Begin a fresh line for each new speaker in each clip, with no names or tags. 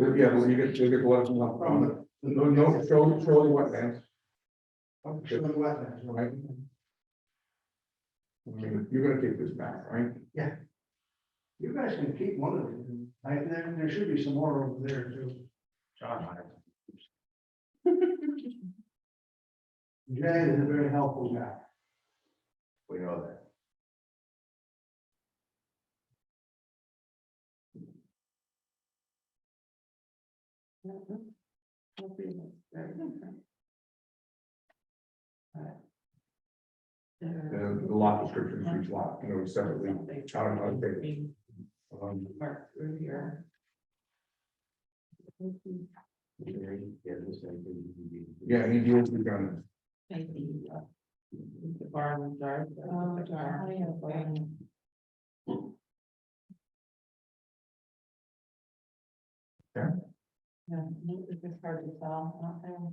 Yeah, well, you get, you get the letters from the, no, no, show, show the wetlands,
Oh, Show the wetlands,
right? I mean, You're gonna take this back, right?
You guys can keep one of them. I, there, there should be some more over there too. John. Jay is a very helpful guy.
We know that.
The, the lot description for each lot, you know, separately. out of our data. Um,
Mark through here.
Yeah, he deals with guns.
Maybe, uh, The bar and jar. Oh, jar.
Yeah.
Yeah, no, it's just hard to tell, I don't know.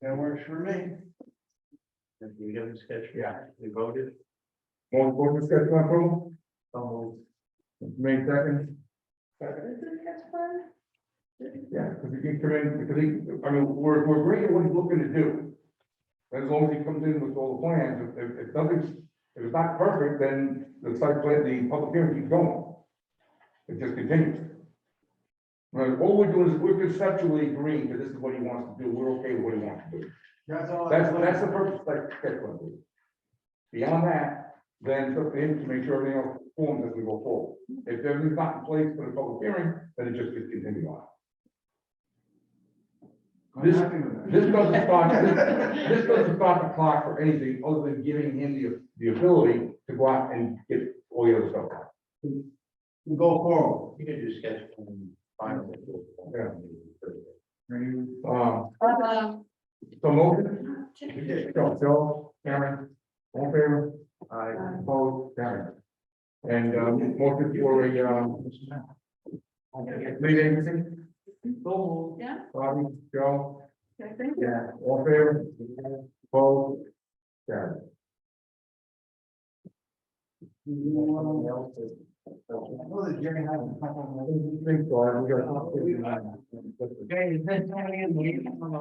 That works for me.
Have you given sketch?
Yeah.
We voted.
All board discussion on approval? May second?
Is it catch fire?
Yeah, because he can come in, because he, I mean, we're, we're agreeing what he's looking to do. As long as he comes in with all the plans, if, if, if nothing's, if it's not perfect, then the site plan, the public hearing keeps going. It just continues. Right, all we're doing is we're conceptually agreeing that this is what he wants to do, we're okay with what he wants to do.
That's all. I-
That's, that's the purpose, like, sketch plan. is. Beyond that, then it's up to him to make sure everything else forms as we go forward. If everything's not in place for the public hearing, then it just gets continued on.
I'm happy with that.
This doesn't stop, this, this doesn't stop the clock for anything other than giving him the, the ability to go out and get all the other stuff. done.
We'll Go forward.
You can do sketch plan finally.
Um,
Uh,
so motion,
You did.
so, Joe, Karen, all in favor,
I,
opposed, Karen. And, um, motion for a, um, lead agency,
yeah,
Bobby, Joe,
I think.
yeah, all in favor, opposed, Karen.
Well, the Jerry had a couple
I
of-
didn't think so, I we got.
Okay, is that turning in late on the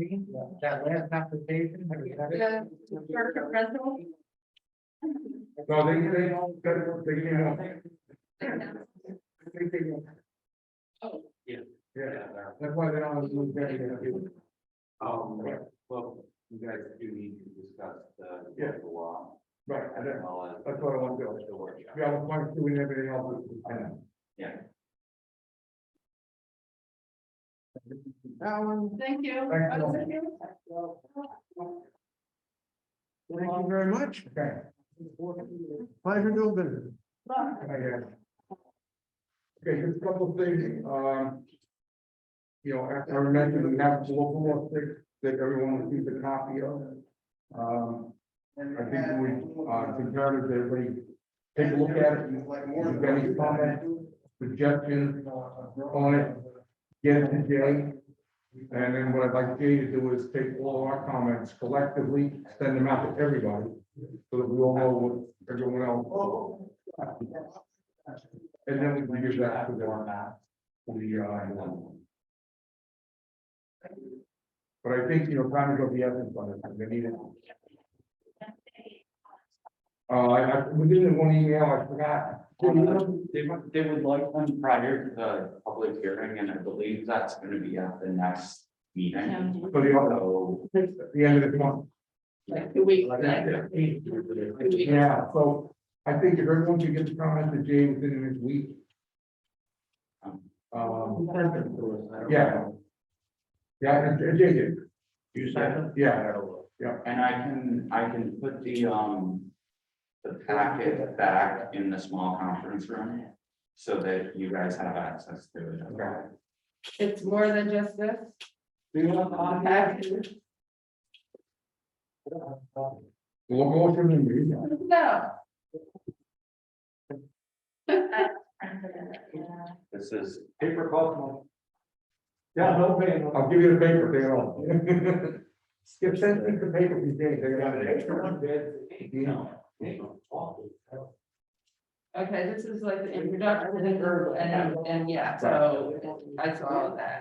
screen? That last application? have we had it?
The circuit rental.
No, they, they, they, they, you know, they, they,
Oh,
yeah, that's why they don't do that.
Um, well, you guys do need to discuss the.
Yeah.
The law.
Right, I
and
don't,
all that.
that's what I want to do.
The workshop.
Yeah, I was wanting to do everything else, I know.
Thank you.
Thank you.
Oh, thank you.
Thank you very much.
Okay,
Pleasure doing business.
Bye.
I guess. Okay, just a couple of things, um. You know, after I mentioned, we have local law six that everyone received a copy of. Um, I think we, uh, concerned that everybody take a look at it,
Like more.
You've got any comments? suggestions, uh, on it, get it to Jay. And then what I'd like Jay to do is take all our comments collectively, send them out to everybody, so that we all know what everyone else. And then we can give that to them. to the, uh, But I think, you know, time to go the essence on this, and they need it. Uh, I, I- we did it in one email, I forgot.
They would, they would- they would like them prior to the public hearing, and I believe that's gonna be at the next meeting.
So the, other-
So,
the end of the month.
Like two weeks.
Yeah, so I think if everyone could get the comment to Jay within this week. Um, yeah. Yeah, and and Jay did,
You signed up?
yeah,
and I can, I can put the, um, the packet back in the small conference room so that you guys have access to it.
Okay.
It's more than just this.
Yeah.
package.
we'll go through the meeting.
No.
This is paper call.
Yeah, no paper. I'll give you the paper, take it all. Skip sent me the paper, we did, they got an extra one.
bid.
You know.
Okay, this is like the introduction and, and, and yeah, so I saw that.